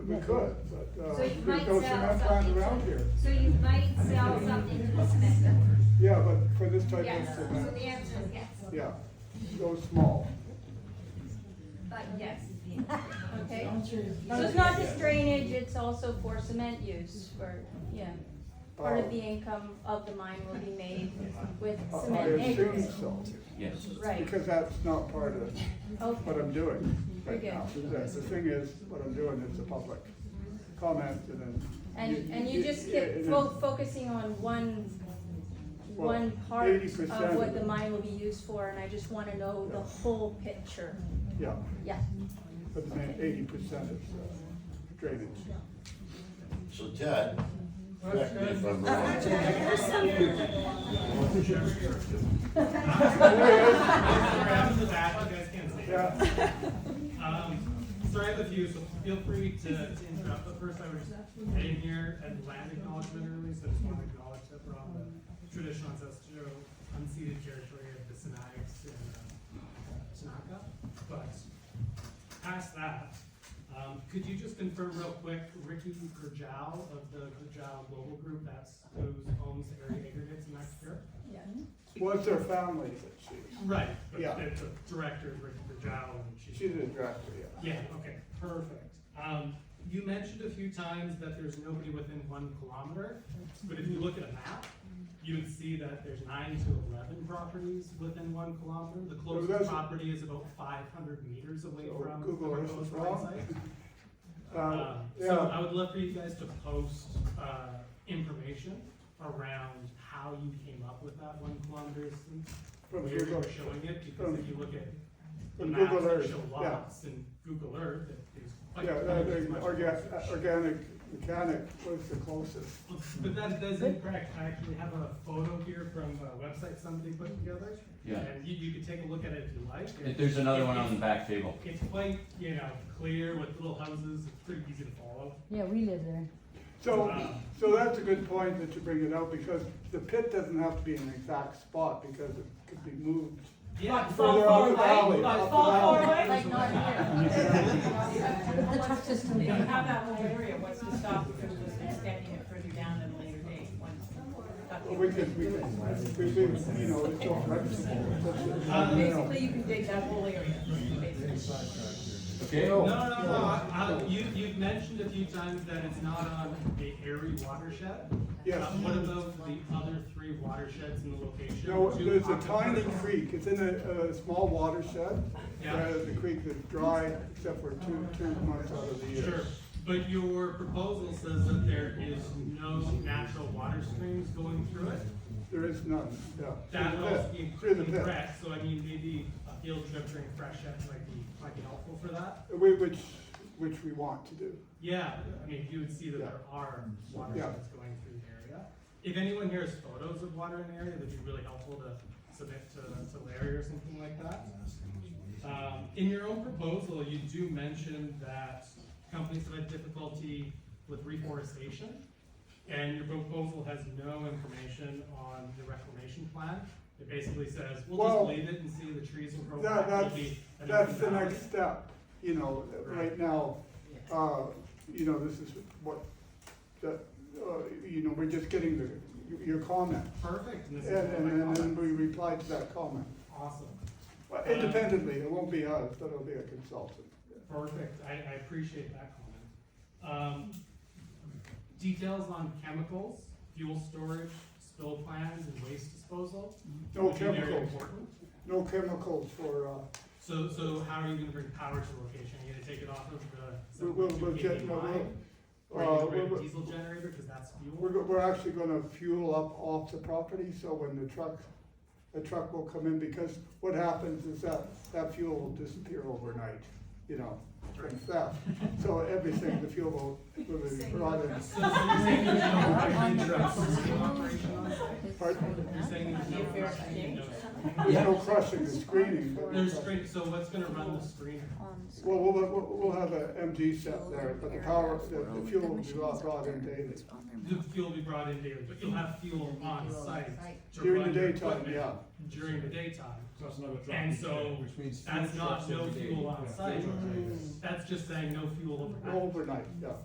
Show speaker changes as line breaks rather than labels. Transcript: We could, but, uh,
So you
there's
might
no
sell
cement plant around
something,
here.
so you might sell something to a cement builder.
Yeah, but for this type
Yes,
of
so
cement,
the answer is yes,
yeah, go small.
but yes.
Okay, so it's not just drainage, it's also for cement use, for, yeah. Part of the
Oh.
income of the mine will be made with
Uh, I
cement
assume
acres.
so,
Yes.
Right,
because that's not part of what
okay,
I'm doing right
Very
now. The,
good.
the thing is, what I'm doing is the public comment and then.
and, and you just
and
keep
then-
fo- focusing on one,
Well,
one part
80%
of what the mine will be used for, and I just wanna know the whole picture,
Yeah,
yeah.
but then eighty percent is uh, drainage.
So Ted, correct me if I'm wrong.
Grab the back, you guys can't see.
Yeah,
Um, sorry I have a few, so feel free to to interrupt, but first I was, I didn't hear a land acknowledgement earlier, so I just want to acknowledge that we're on the traditional ancestral unceded territory of the Sinaiaks and uh, Tanaka, but past that, um, could you just confirm real quick, Ricky Gurjal of the Gurjal Global Group, that's those owns area aggregates in Mexico?
was their family that she,
Right, but
Yeah.
the the director, Ricky Gurjal, and she's.
she did a director, yeah.
Yeah, okay, perfect. Um, you mentioned a few times that there's nobody within one kilometer, but if you look at a map, you would see that there's nine to eleven properties within one kilometer. The
that's-
closest property is about five hundred meters away
So
from the
Google Earth is
proposed
wrong?
site.
Uh,
Um, So
yeah,
I would love for you guys to post, uh, information around how you came up with that one kilometer distance.
from
Where
Google,
you're showing it, because if you look at the
from
maps
Google
that
Earth,
show
yeah.
lots and Google Earth, it is quite.
Yeah,
quite
that,
as
that
much
orga- uh,
closer.
organic mechanic was the closest.
But that, that's incorrect, I actually have a photo here from a website somebody put together.
Yeah.
And you, you could take a look at it if you like.
If there's another one on the back table.
It's quite, you know, clear with little houses, it's pretty easy to follow.
Yeah, we live there.
So, so that's a good point that you bring it out, because the pit doesn't have to be in an exact spot, because it could be moved.
Yeah.
Further up the valley,
Not
up the
far
valley.
away.
Like not here,
The truck system.
They don't have that whole area, what's to stop from just extending it further down at a later date, once.
But We could, we could, we could, you know, it's all
Um,
flexible.
Basically, you can dig that whole area, basically.
Okay.
No, no, no, no, I, I, you, you've mentioned a few times that it's not on the Erie watershed.
Yes.
Uh, What about the other three watersheds in the location?
No,
Two
there's a
aquifers.
tiny creek, it's in a, a small watershed,
Yeah.
whereas the creek is dry, except for two, two months out of the year.
Sure, but your proposal says that there is no natural water streams going through it.
There is none, yeah.
That
Through the
also
pit,
be
Through the pit.
correct, so I mean, maybe a field trip during fresh air might be, might be helpful for that.
We- Which, which we want to do.
Yeah, I mean, you would see that there are watersheds going through the area. If anyone here has photos of water in the area, that'd be really helpful to submit to, to Larry or something like that. Um, in your own proposal, you do mention that companies have had difficulty with reforestation, and your proposal has no information on the reclamation plan. It basically says,
Well,
we'll just leave it and see the trees will grow
that-
back, it'll
that's-
be an
That's
open
the
valley."
next step, you know, right
Right.
now, uh, you know, this is what, that, uh, you know, we're just getting the, your comment.
Perfect, and this
And,
is one of my
and then
comments.
we reply to that comment.
Awesome.
Well,
Uh,
Independently, it won't be us, but it'll be a consultant.
Perfect, I, I appreciate that comment. Um, details on chemicals, fuel storage, spill plans, and waste disposal.
No
would be very
Oh, chemicals.
important.
No chemicals for, uh,
So, so how are you gonna bring power to the location? Are you gonna take it off of the?
We'll- we'll- we'll
7.2
get-
KV
we'll-
line? Or
uh,
are you gonna bring
we'll-
a diesel generator, because that's
we're,
fuel?
go- we're actually gonna fuel up off the property, so when the truck, the truck will come in, because what happens is that, that fuel will disappear overnight, you know, from theft. So everything, the fuel will, will be brought in.
So, so you're saying there's no operation on site?
Pardon?
You're saying there's no
Fair
crushing, no-
There's no crushing and screening, but.
there's screen, so what's gonna run the screener?
Well, we'll, we'll, we'll have a MG set there, but the power, the, the fuel will be brought brought in daily.
The fuel will be brought in daily, but you'll have fuel on site. to
During the
run your
daytime,
equipment
yeah.
During the daytime.
That's another drop.
And so,
Which means
That's
fuel
not
trucks
no
every day.
fuel on
Yeah,
site, Mm.
fuel trucks every day.
that's just saying no fuel overnight.
Overnight, yeah.